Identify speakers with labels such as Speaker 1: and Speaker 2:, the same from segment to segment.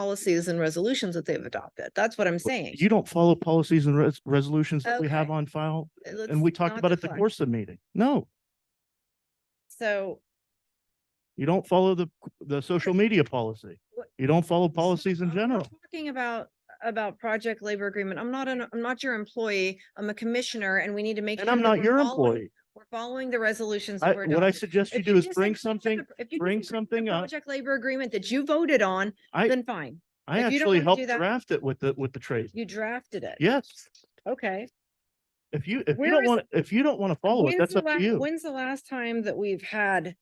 Speaker 1: policies and resolutions that they've adopted. That's what I'm saying.
Speaker 2: You don't follow policies and res- resolutions that we have
Speaker 1: Okay.
Speaker 2: on file,
Speaker 1: Let's
Speaker 2: and we talked
Speaker 1: not
Speaker 2: about it at the
Speaker 1: deflect.
Speaker 2: Corsa meeting. No,
Speaker 1: So
Speaker 2: you don't follow the, the social media policy.
Speaker 1: What-
Speaker 2: You don't follow
Speaker 1: So
Speaker 2: policies in
Speaker 1: I'm not
Speaker 2: general.
Speaker 1: Talking about, about project labor agreement. I'm not an, I'm not your employee. I'm a commissioner and we need to make.
Speaker 2: And
Speaker 1: sure
Speaker 2: I'm
Speaker 1: that
Speaker 2: not
Speaker 1: we're
Speaker 2: your
Speaker 1: following-
Speaker 2: employee.
Speaker 1: We're following the resolutions.
Speaker 2: I,
Speaker 1: that were
Speaker 2: what I
Speaker 1: adopted.
Speaker 2: suggest you
Speaker 1: If you
Speaker 2: do is
Speaker 1: disagree
Speaker 2: bring
Speaker 1: with the-
Speaker 2: something,
Speaker 1: if you disagree
Speaker 2: bring
Speaker 1: with the
Speaker 2: something up.
Speaker 1: Project labor agreement that you voted on,
Speaker 2: I,
Speaker 1: then fine.
Speaker 2: I
Speaker 1: if you don't
Speaker 2: actually
Speaker 1: wanna do
Speaker 2: helped
Speaker 1: that-
Speaker 2: draft it with the, with the trade.
Speaker 1: You drafted it.
Speaker 2: Yes,
Speaker 1: Okay.
Speaker 2: if you, if you
Speaker 1: Where
Speaker 2: don't
Speaker 1: is-
Speaker 2: want, if you don't want to follow it,
Speaker 1: When's
Speaker 2: Oh, that's
Speaker 1: the
Speaker 2: up to
Speaker 1: la-
Speaker 2: you.
Speaker 1: When's the last time that we've had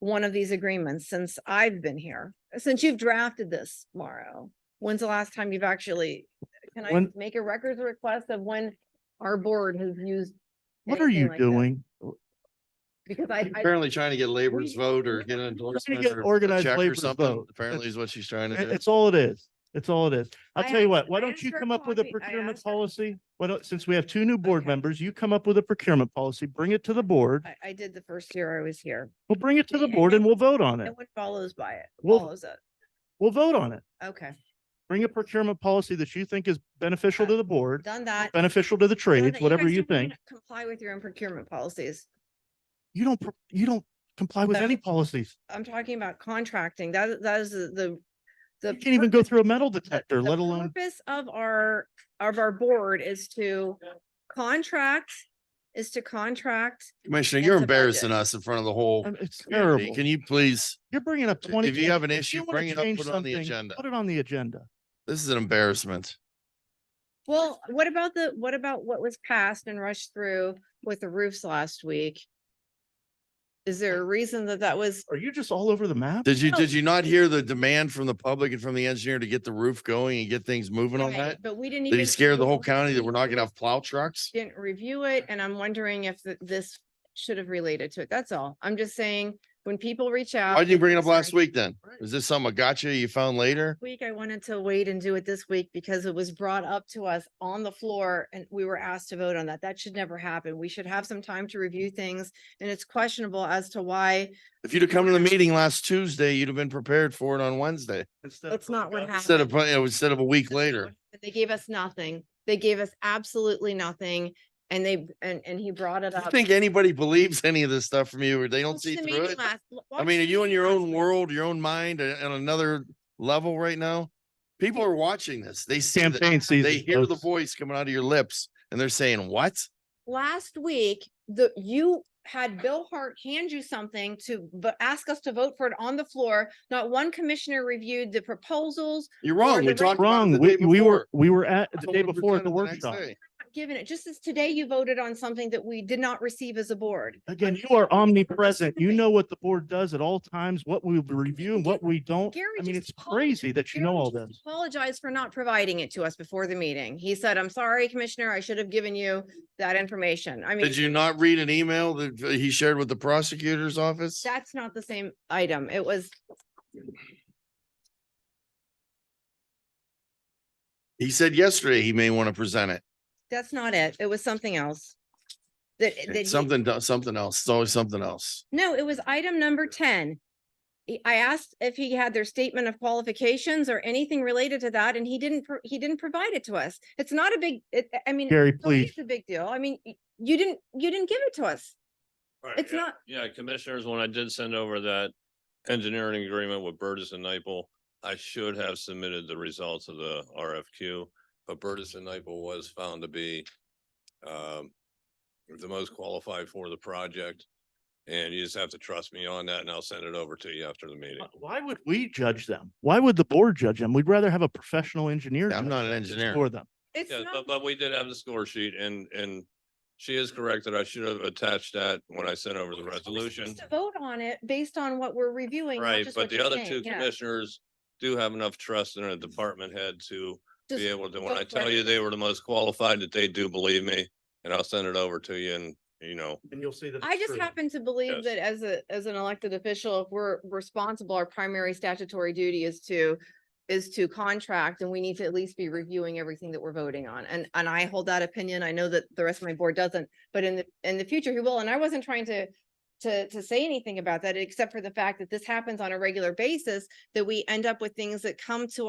Speaker 1: one of these agreements since I've been here? Since you've drafted this, Mauro? When's the last time you've actually, can I
Speaker 2: When-
Speaker 1: make a records request of when our board has used?
Speaker 2: What are
Speaker 1: anything
Speaker 2: you
Speaker 1: like this?
Speaker 2: doing?
Speaker 1: Because I, I,
Speaker 3: Apparently trying to get labor's
Speaker 1: We-
Speaker 3: vote or get an endorsement
Speaker 2: get
Speaker 3: or a
Speaker 2: organized
Speaker 3: check or
Speaker 2: labor's
Speaker 3: something.
Speaker 2: vote.
Speaker 3: Apparently is what she's trying to
Speaker 2: It-
Speaker 3: do.
Speaker 2: It's all it is. It's all it is. I'll
Speaker 1: I
Speaker 2: tell you
Speaker 1: asked-
Speaker 2: what, why
Speaker 1: I
Speaker 2: don't
Speaker 1: asked
Speaker 2: you
Speaker 1: her
Speaker 2: come up with a
Speaker 1: coffee- I
Speaker 2: procurement
Speaker 1: asked her-
Speaker 2: policy? Why don't, since we have two new board
Speaker 1: Okay.
Speaker 2: members, you come up with a procurement policy, bring it to the board.
Speaker 1: I, I did the first year I was here.
Speaker 2: We'll bring it to the
Speaker 1: And-
Speaker 2: board and we'll vote on
Speaker 1: No
Speaker 2: it.
Speaker 1: one follows by it,
Speaker 2: Well-
Speaker 1: follows it.
Speaker 2: We'll vote on it.
Speaker 1: Okay,
Speaker 2: Bring a procurement policy that you think is beneficial to the board,
Speaker 1: done that. Done
Speaker 2: beneficial to the
Speaker 1: that.
Speaker 2: trades, whatever
Speaker 1: guys
Speaker 2: you
Speaker 1: don't even
Speaker 2: think.
Speaker 1: Comply with your own procurement policies.
Speaker 2: You don't, pro- you don't comply with
Speaker 1: No.
Speaker 2: any policies.
Speaker 1: I'm talking about contracting. That, that is the- the, the.
Speaker 2: You can't even go
Speaker 1: purpose-
Speaker 2: through a metal
Speaker 1: the-
Speaker 2: detector,
Speaker 1: the
Speaker 2: let alone,
Speaker 1: Purpose of our, of our board is to contract, is to contract.
Speaker 3: Commissioner,
Speaker 1: It's
Speaker 3: you're
Speaker 1: a budget.
Speaker 3: embarrassing us in front of the whole.
Speaker 2: I mean, um, it's
Speaker 3: community.
Speaker 2: terrible.
Speaker 3: Can you please,
Speaker 2: You're bringing up
Speaker 3: if
Speaker 2: twenty.
Speaker 3: you have an
Speaker 2: if
Speaker 3: issue,
Speaker 2: wanna
Speaker 3: bring it up,
Speaker 2: change
Speaker 3: put it on the
Speaker 2: something,
Speaker 3: agenda.
Speaker 2: Put it on the agenda.
Speaker 3: this is an embarrassment.
Speaker 1: Well, what about the, what about what was passed and rushed through with the roofs last week? Is there a reason that that was,
Speaker 2: Are you just all over the map?
Speaker 3: Did you,
Speaker 1: No.
Speaker 3: did you not hear the demand from the public and from the engineer to get the roof going and get things moving on
Speaker 1: right,
Speaker 3: that?
Speaker 1: but we didn't even.
Speaker 3: Did he scare the whole
Speaker 1: review
Speaker 3: county that
Speaker 1: it.
Speaker 3: we're not gonna have plow trucks?
Speaker 1: Didn't review it and I'm wondering if th- this should have related to it. That's all. I'm just saying, when people reach out.
Speaker 3: Why didn't you bring it up
Speaker 1: Sorry.
Speaker 3: last week then? Is this some gotcha you found later?
Speaker 1: week, I wanted to wait and do it this week because it was brought up to us on the floor and we were asked to vote on that. That should never happen. We should have some time to review things and it's questionable as to why
Speaker 3: If you'd have come to the meeting last Tuesday, you'd have been prepared for it on Wednesday
Speaker 1: that's not what happened.
Speaker 3: instead of, put- you know, instead of a week later.
Speaker 1: They gave us nothing. They gave us absolutely nothing and they, and, and he brought it
Speaker 3: Do you
Speaker 1: up.
Speaker 3: think anybody believes any of this stuff from you or they don't
Speaker 1: Watch
Speaker 3: see
Speaker 1: the
Speaker 3: through
Speaker 1: meeting
Speaker 3: it?
Speaker 1: last-
Speaker 3: I
Speaker 1: watch
Speaker 3: mean, are
Speaker 1: the
Speaker 3: you in
Speaker 1: meeting
Speaker 3: your
Speaker 1: last
Speaker 3: own
Speaker 1: week.
Speaker 3: world, your own mind a- on another level right now? People are watching this. They see, the-
Speaker 2: Campaign season.
Speaker 3: they hear the
Speaker 2: folks.
Speaker 3: voice coming out of your lips and they're saying, what?
Speaker 1: last week, the, you had Bill Hart hand you something to, but ask us to vote for it on the floor. Not one commissioner reviewed the proposals,
Speaker 3: You're
Speaker 1: Or
Speaker 3: wrong.
Speaker 1: the
Speaker 3: We
Speaker 1: rec-
Speaker 3: talked about it
Speaker 2: Wrong.
Speaker 3: the day
Speaker 2: We, we were,
Speaker 3: before.
Speaker 2: we were at the day
Speaker 3: 100%
Speaker 2: before at the
Speaker 3: next
Speaker 2: workshop.
Speaker 3: day.
Speaker 1: not given it. Just as today you voted on something that we did not receive as a board.
Speaker 2: Again, you are omnipresent. You know what the board does at all times, what we review and what we don't.
Speaker 1: Gary
Speaker 2: I mean,
Speaker 1: just
Speaker 2: it's
Speaker 1: called me.
Speaker 2: crazy that you know
Speaker 1: Gary
Speaker 2: all
Speaker 1: just
Speaker 2: this.
Speaker 1: Apologized for not providing it to us before the meeting. He said, I'm sorry, Commissioner, I should have given you that information. I mean,
Speaker 3: Did you not read an email that uh, he shared with the prosecutor's office?
Speaker 1: that's not the same item. It was,
Speaker 3: He said yesterday he may want to present it.
Speaker 1: that's not it. It was something else. That, that. he-
Speaker 3: It's something, do- something else. It's always something else.
Speaker 1: No, it was item number ten. He- I asked if he had their statement of qualifications or anything related to that, and he didn't, pro- he didn't provide it to us. It's not a big, it, I mean.
Speaker 2: Gary,
Speaker 1: it's always
Speaker 2: please.
Speaker 1: a big deal. I mean, y- you didn't, you didn't give it to us.
Speaker 4: Right,
Speaker 1: It's
Speaker 4: yeah.
Speaker 1: not-
Speaker 4: Yeah, commissioners, when I did send over that engineering agreement with Burtis and Nipal, I should have submitted the results of the RFQ, but Burtis and Nipal was found to be um, the most qualified for the project. And you just have to trust me on that and I'll send it over to you after the meeting.
Speaker 2: Why would we judge them? Why would the board judge them? We'd rather have a professional engineer.
Speaker 3: Yeah, I'm
Speaker 2: judge
Speaker 3: not an
Speaker 2: them
Speaker 3: engineer.
Speaker 2: For them.
Speaker 1: It's
Speaker 4: Yeah,
Speaker 1: not,
Speaker 4: but, but we did have the score sheet and, and she is correct that I should have attached that when I sent over the
Speaker 1: we're
Speaker 4: resolution.
Speaker 1: supposed to vote on it based on what we're reviewing. not
Speaker 4: Right,
Speaker 1: just
Speaker 4: but
Speaker 1: what
Speaker 4: the
Speaker 1: you're
Speaker 4: other
Speaker 1: saying.
Speaker 4: two
Speaker 1: Yeah.
Speaker 4: commissioners do have enough trust in their department head to
Speaker 1: Just-
Speaker 4: be able to, when
Speaker 1: go
Speaker 4: I
Speaker 1: for
Speaker 4: tell
Speaker 1: it.
Speaker 4: you they were the most qualified, that they do believe me, and I'll send it over to you and, you know,
Speaker 2: And you'll see that.
Speaker 1: I just happen to believe
Speaker 4: Yes.
Speaker 1: that as a, as an elected official, if we're responsible, our primary statutory duty is to, is to contract and we need to at least be reviewing everything that we're voting on. And, and I hold that opinion. I know that the rest of my board doesn't, but in the, in the future he will. And I wasn't trying to to, to say anything about that, except for the fact that this happens on a regular basis, that we end up with things that come to